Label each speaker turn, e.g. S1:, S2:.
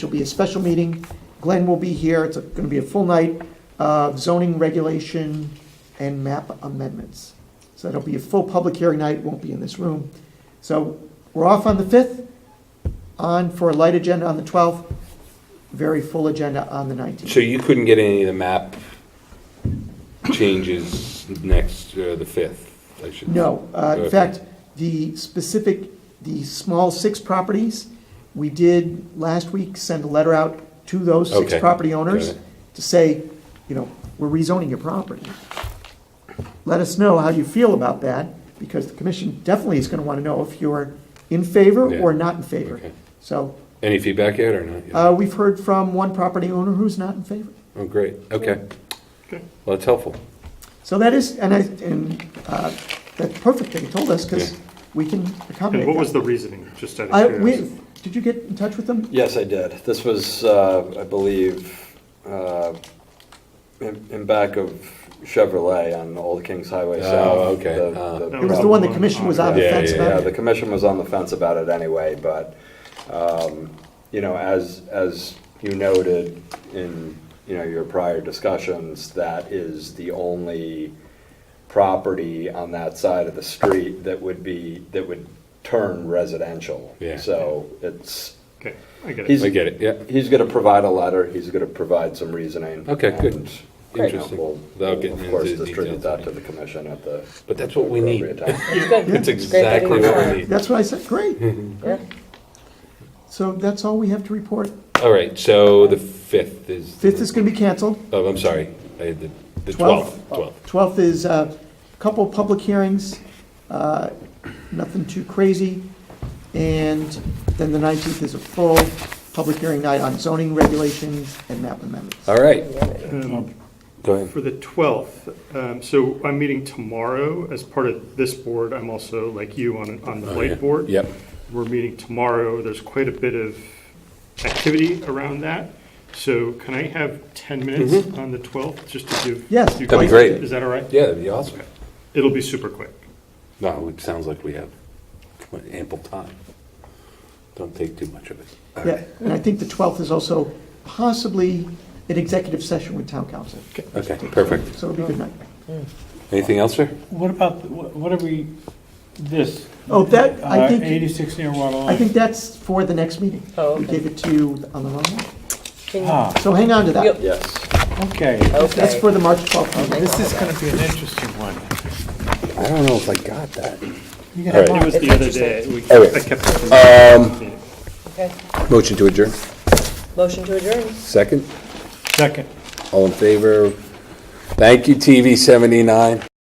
S1: There'll be a special meeting. Glenn will be here. It's going to be a full night of zoning regulation and map amendments. So it'll be a full public hearing night. It Won't be in this room. So we're off on the 5th, on for a light agenda on the 12th, very full agenda on the 19th.
S2: So you couldn't get any of the map changes next, uh, the 5th, I should.
S1: No, uh, in
S2: Okay.
S1: fact, the specific, the small six properties, we did last week send a letter out to those six
S2: Okay,
S1: property
S2: got
S1: owners
S2: it.
S1: to say, you know, we're rezoning your property. Let us know how you feel about that, because the commission definitely is gonna wanna know if you're in favor
S2: Yeah,
S1: or not in favor.
S2: Okay.
S1: So,
S2: Any feedback yet or not? yet?
S1: uh, we've heard from one property owner who's not in favor.
S2: Oh, great, okay. Well, that's helpful.
S1: So that is, and I, and, uh, that's perfect that you told us, cause
S2: Yeah.
S1: we can accommodate
S3: And what
S1: that.
S3: was the reasoning, just out
S1: I,
S3: of
S1: we,
S3: curiosity?
S1: did you get in touch with them?
S4: Yes, I did. This was, uh, I believe, uh, in in back of Chevrolet on Old Kings Highway
S2: Oh,
S4: South.
S2: okay.
S4: The-
S2: Uh,
S4: the
S1: It was the one the commission was on the
S2: Yeah, yeah,
S1: fence
S2: yeah.
S4: yeah,
S1: about.
S4: the commission was on the fence about it anyway, but, um, you know, as, as you noted in, you know, your prior discussions, that is the only property on that side of the street that would be, that would turn residential.
S2: Yeah.
S4: So it's,
S3: Okay, I get it.
S4: he's,
S2: I get it, yeah.
S4: he's gonna provide a letter, he's gonna provide some reasoning.
S2: Okay, good.
S4: and, you know,
S2: Interesting.
S4: we'll-
S2: Without
S4: we'll,
S2: getting
S4: Of course,
S2: into the
S4: distribute
S2: details.
S4: that to the commission at the.
S2: But that's what we need.
S4: appropriate time.
S2: That's exactly what we need.
S1: That's what I said, great.
S5: Yeah.
S1: So that's all we have to report.
S2: All right, so the 5th is.
S1: Fifth is gonna be canceled.
S2: Oh, I'm sorry, I had the, the 12th,
S1: Twelfth.
S2: 12th.
S1: Twelfth is a couple of public hearings, uh, nothing too crazy. And then the nineteenth is a full public hearing night on zoning regulations and map amendments.
S2: All right,
S3: Um,
S2: go ahead.
S3: For the 12th, um, so I'm meeting tomorrow as part of this board. I'm also, like you, on, on the
S2: Oh, yeah.
S3: light board.
S2: Yep,
S3: We're meeting tomorrow. There's quite a bit of activity around that. So can I have 10 minutes on the 12th, just to give?
S1: Mm-hmm. Yes.
S3: you
S2: That'd be
S3: guys-
S2: great.
S3: Is that all right?
S2: yeah, that'd be awesome.
S3: It'll be super quick.
S2: No, it sounds like we have ample time. Don't take too much of it. All
S1: Yeah,
S2: right.
S1: and I think the twelfth is also possibly an executive session with town council,
S2: Okay, perfect.
S1: so it'll be a good night.
S2: Anything else, sir?
S6: What about, the- what what are we, this?
S1: Oh, that- I
S6: Uh,
S1: think-
S6: Eighty-six near water line?
S1: I think that's for the next meeting.
S5: Oh,
S1: We
S5: okay.
S1: gave it to you on the wrong one.
S5: Can you-
S6: Ah,
S1: So hang on to that.
S5: Yep.
S4: Yes.
S6: okay.
S1: That's
S5: Okay.
S1: for the March 12th meeting.
S6: This is gonna be an interesting one.
S2: I don't know if I got that.
S6: You got a
S2: All right.
S3: It
S6: lot.
S3: was the other day. We-
S2: Anyway.
S3: I kept it. from-
S4: Um,
S5: Okay.
S2: Motion to adjourn.
S5: Motion to adjourn.
S2: Second,
S6: Second.
S2: all in favor? Thank you, TV 79.